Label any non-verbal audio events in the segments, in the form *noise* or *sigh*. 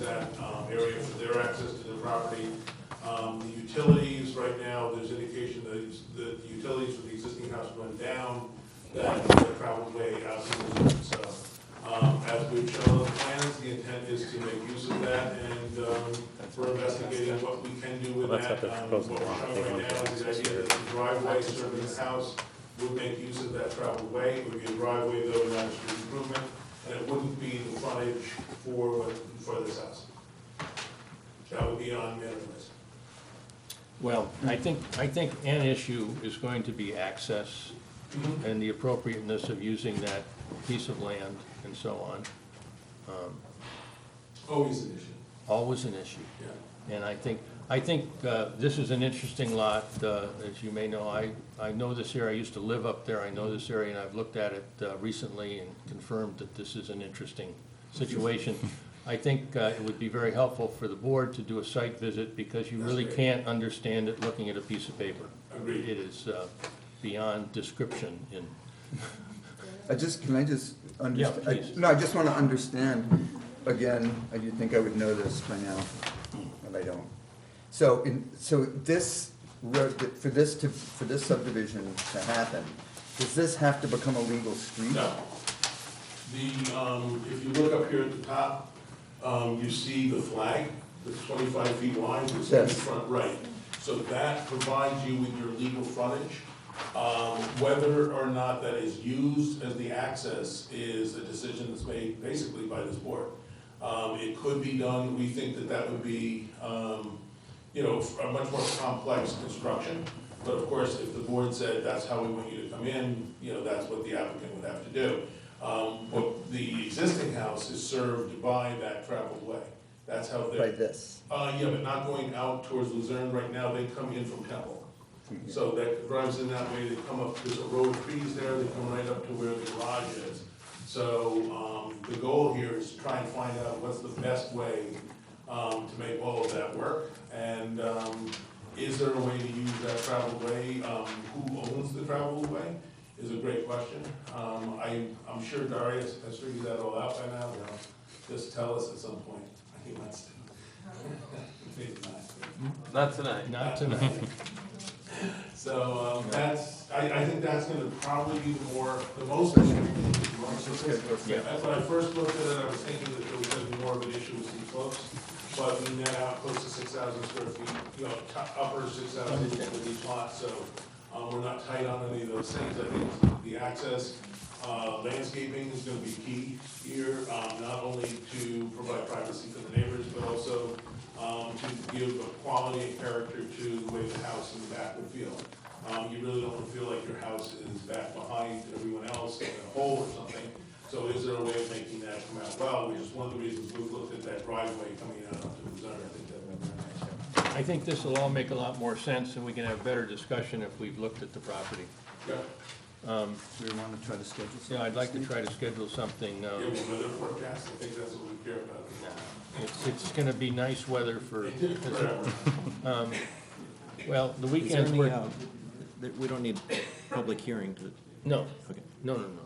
that um, area for their access to the property. Um, The utilities, right now, there's indication that it's- that the utilities for the existing house run down, that the travel way out to the, so. um, As we've shown on the plans, the intent is to make use of that, and um, we're investigating what we can do with Well, that. that's what they're Um, proposing, What we're I showing think, right now is the idea that the driveway serving the house would make use of that travel way, it would be a driveway though, not a street improvement, and it wouldn't be the frontage for, what- for this house. That would be on Metamis. Well, I think, I think an issue is going to be access and the appropriateness of using that piece of land and so on. Um, Always an issue, Always an issue. yeah. And I think, I think uh, this is an interesting lot, uh, as you may know, I, I know this area, I used to live up there, I know this area, and I've looked at it uh, recently and confirmed that this is an interesting situation. I think uh, it would be very helpful for the board to do a site visit, because you That's really great. can't understand it looking at a piece of paper. Agreed. It is uh, beyond description in, I just, can I just Yeah, understand? please. No, I just want to understand, again, I do think I would know this by now, but I don't. So, in, so this road, for this to, for this subdivision to happen, does this have to become a legal street? No. The, um, if you look up here at the top, um, you see the flag, that's twenty-five feet wide, it's in the Yes. front right. So that provides you with your legal frontage. Um, whether or not that is used as the access is a decision that's made basically by this board. Um, it could be done, we think that that would be, um, you know, a much more complex construction. But of course, if the board said, that's how we want you to come in, you know, that's what the applicant would have to do. Um, but the existing house is served by that traveled way. That's how By they're, this? uh, yeah, but not going out towards Luzerne right now, they come in from Temple. So that drives in that way, they come up, there's a row of trees there, they come right up to where the garage is. So, um, the goal here is to try and find out what's the best way, um, to make all of that work. And, um, is there a way to use that travel way, um, who owns the travel way, is a great question. Um, I, I'm sure Darius has figured that all out by now, he'll just tell us at some point, he wants to. Maybe not. Not tonight. not tonight. *laughs* So um, that's, I, I think that's gonna probably be the more, the most issue. Yeah. As When I first looked at it, I was thinking that there was gonna be more of an issue with some slopes, but we net out close to six thousand square feet, you know, top- upper six thousand with each lot, so um, we're not tight on any of those things. I think the access, uh, landscaping is gonna be key here, um, not only to provide privacy for the neighbors, but also um, to give a quality and character to the way the house in the back would feel. Um, you really don't wanna feel like your house is back behind everyone else in a hole or something. So is there a way of making that come out well, which is one of the reasons we've looked at that driveway coming out onto the zone, I think that would be nice. I think this will all make a lot more sense, and we can have better discussion if we've looked at the property. Yeah, Do we want to try to schedule Yeah, I'd like to try to schedule something, uh, yeah, well, weather forecast, I think that's what we care about. It's, it's gonna be nice *laughs* weather for, Forever. well, the Is there weekends any, were, uh, that we don't need public hearing to, no, okay. no, no, no, no, no.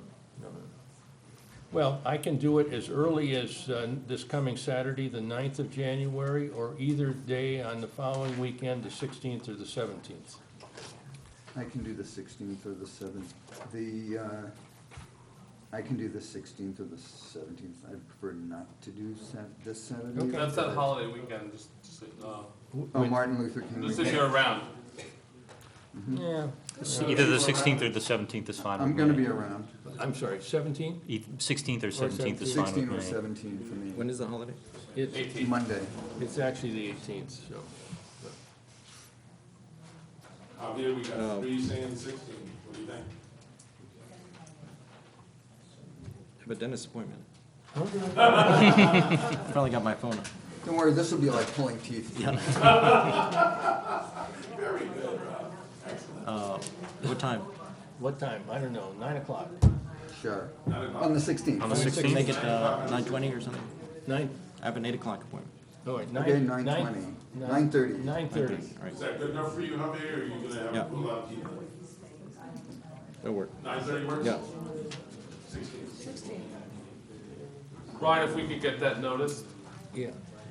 Well, I can do it as early as uh, this coming Saturday, the 9th of January, or either day on the following weekend, the sixteenth or the seventeenth. I can do the sixteenth or the seventh, the, uh, I can do the sixteenth or the seventeenth, I prefer not to do Sat- this Saturday. Okay. That's that holiday weekend, just, just, uh, Oh, Martin Luther King just if weekend. you're around. Yeah, Either the 16th or the 17th is fine with me. I'm gonna be around, I'm sorry, seventeen? Eith- 16th or 17th is fine sixteen or with me. seventeen for me. when is the holiday? It's, Monday. it's actually the eighteenth, so. Javier, we got No. three saying sixteen, what do you think? I have a *laughs* dentist appointment. Probably got my phone. Don't worry, this will be like pulling teeth. Uh, What time? What time? I don't know, nine o'clock, Sure. On the sixteenth. On the Make 16th? it uh, nine twenty or something? nine, I have an eight o'clock appointment. all right, nine. Okay, nine twenty. Nine thirty. Nine thirty. All right, Is that good enough for you, Javier, or are you gonna Yeah. have a pull out key? it'll work. Nine thirty works? Yeah. Sixteen. Ryan, if we could get that noticed, Yeah,